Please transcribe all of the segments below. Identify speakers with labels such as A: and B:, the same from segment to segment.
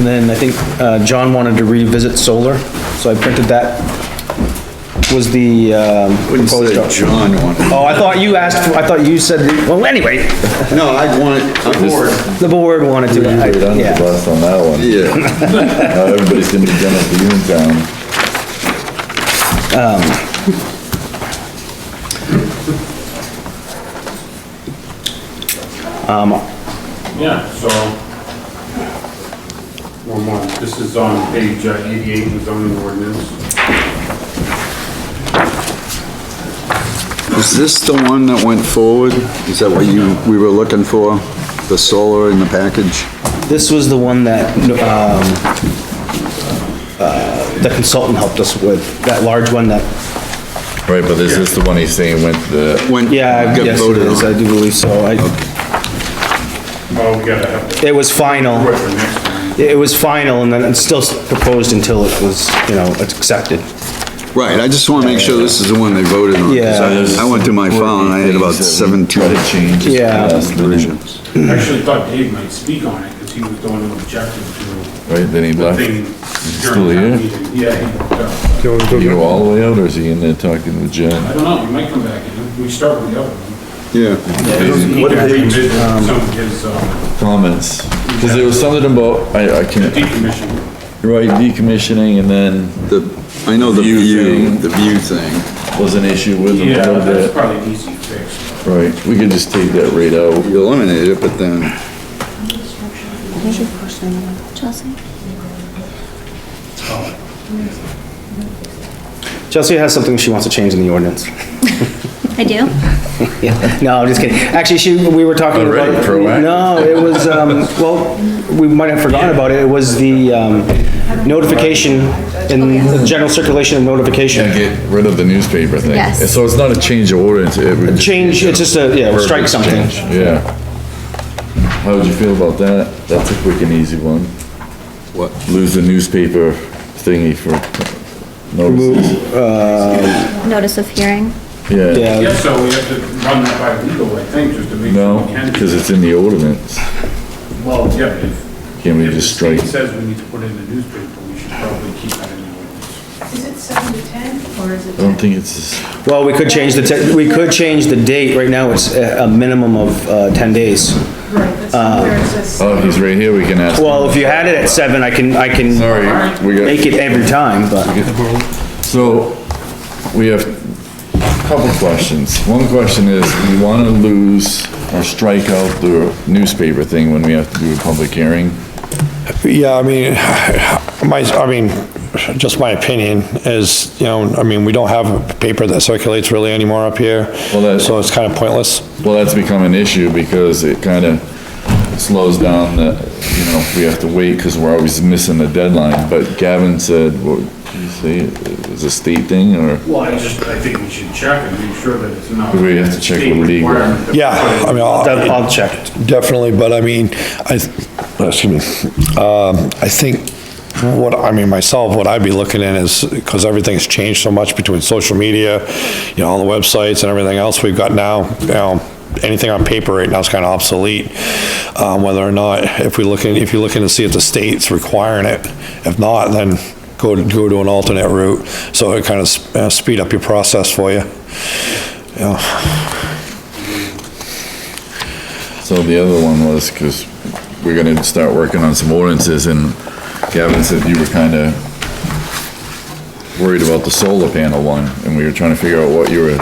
A: And then I think uh, John wanted to revisit solar, so I printed that. Was the um,
B: Wouldn't
A: proposed
B: say
A: structure.
B: John wanted.
A: Oh, I thought you asked, for- I thought you said, well, anyway,
B: No, I want, I'm bored.
A: the board wanted to.
C: You're under the
A: Yeah.
C: bus on that one.
B: Yeah,
C: Now everybody's gonna be done at the Uniontown.
D: Yeah, so. One more, this is on page uh, eighty-eight in the zoning ordinance.
B: is this the one that went forward? Is that what you, we were looking for? The solar in the package?
A: This was the one that, um, uh, the consultant helped us with, that large one that,
C: Right, but is this the one he's saying went the,
B: Went,
A: yeah,
B: got
A: yes, it
B: voted
A: is, I
B: on.
A: do believe so. I,
D: Oh, we gotta have the,
A: it was final.
D: what's the next one?
A: It was final and then it's still proposed until it was, you know, it's accepted.
B: Right, I just wanna make sure this is the one they voted on. 'cause
A: Yeah.
B: I I went through my file and I had about seventeen
C: changes.
A: Yeah.
B: versions.
D: I Actually thought Dave might speak on it, because he was the one who objected to
C: Right, then he
D: the
C: left.
D: thing
C: Uh, still here?
D: during town meeting. Yeah, he, uh,
C: You go all the way out, or is he in there talking with John?
D: I don't know, he might come back, in. we start with the other one.
B: Yeah,
D: He can revisit Some of his, uh,
C: Comments? Cause there was something about, I, I can't,
D: decommission.
C: right, decommissioning and then
B: the, I know the
C: View
B: view,
C: thing.
B: the view thing.
C: was an issue with him a
D: Yeah,
C: little
D: that's
C: bit.
D: probably an easy fix.
C: Right, we could just take that right out.
B: You eliminated it, but then,
E: What's your first name, Chelsea?
A: Chelsea has something she wants to change in the ordinance.
E: I do.
A: Yeah, no, I'm just kidding. Actually, she, we were talking about.
C: Already proactive.
A: No, it was, um, well, we might have forgotten about it. It was the, um, notification in the general circulation of
C: And
A: notification.
C: get rid of the newspaper thing.
E: Yes.
C: And So it's not a change of ordinance. it would just-
A: Change, it's just a, yeah, strike something.
C: Yeah. How would you feel about that? That's a quick and easy one.
B: What?
C: Lose the newspaper thingy for notices.
E: Notice of hearing.
C: Yeah,
D: Yeah,
A: Yeah,
D: so we have to run that by legal, I think, just to make sure
C: no,
D: we can.
C: because it's in the ordinance.
D: Well, yeah, but if,
C: Can we
D: If the
C: just strike?
D: state says we need to put it in the newspaper, we should probably keep that in the ordinance.
F: Is it seven to 10, or is it
C: I don't think it's,
A: well, we could change the, te- we could change the date. Right now, it's a, a minimum of, uh, ten days.
F: Right, that's where it says
C: oh, he's right here, we can ask. him.
A: Well, if you had it at seven, I can, I can
C: Sorry, we got.
A: make it every time, but.
C: So, we have a couple questions. One question is, we wanna lose or strike out the newspaper thing when we have to do a public hearing?
G: Yeah, I mean, my, I mean, just my opinion is, you know, I mean, we don't have a paper that circulates really anymore up here,
C: Well, that-
G: so it's kind of pointless.
C: Well, that's become an issue because it kinda slows down the, you know, we have to wait because we're always missing the deadline. But Gavin said, what, did you say, it was a state thing or?
D: Well, I just, I think we should check and make sure that it's not.
C: We have to check with legal.
G: Yeah, I mean, I'll-
A: I'll check.
G: definitely, but I mean, I, excuse me, um, I think what, I mean, myself, what I'd be looking at is, because everything's changed so much between social media, you know, all the websites and everything else we've got now, you know, anything on paper right now is kind of obsolete. Um, whether or not, if we look in, if you're looking to see if the state's requiring it, if not, then go to, go to an alternate route. So it kind of speed up your process for you. Yeah.
C: So the other one was, because we're gonna start working on some ordinances, and Gavin said you were kinda worried about the solar panel one, and we were trying to figure out what you were,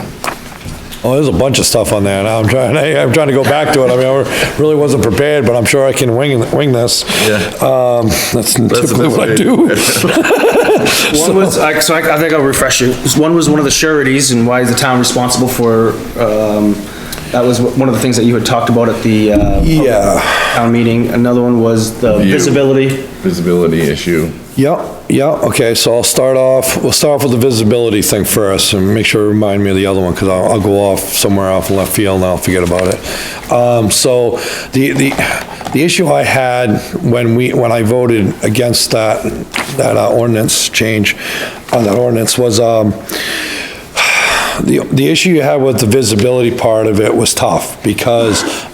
G: Oh, there's a bunch of stuff on there, and I'm trying, I- I'm trying to go back to it, I mean, I really wasn't prepared, but I'm sure I can wing, wing this.
C: Yeah.
G: Um, that's typically what I
C: best
G: do.
A: One was, I- so I, I think I'll refresh you. One was one of the sureties and why is the town responsible for, um, that was one of the things that you had talked about at the, uh,
G: Yeah.
A: town meeting. Another one was the
C: View.
A: visibility.
C: visibility issue.
G: Yep, yeah, okay, so I'll start off, we'll start off with the visibility thing first, and make sure, to remind me of the other one, because I'll, I'll go off somewhere off in left field and I'll forget about it. Um, so, the, the, the issue I had when we, when I voted against that, that uh, ordinance change, on that ordinance was, um, the, the issue you had with the visibility part of it was tough, because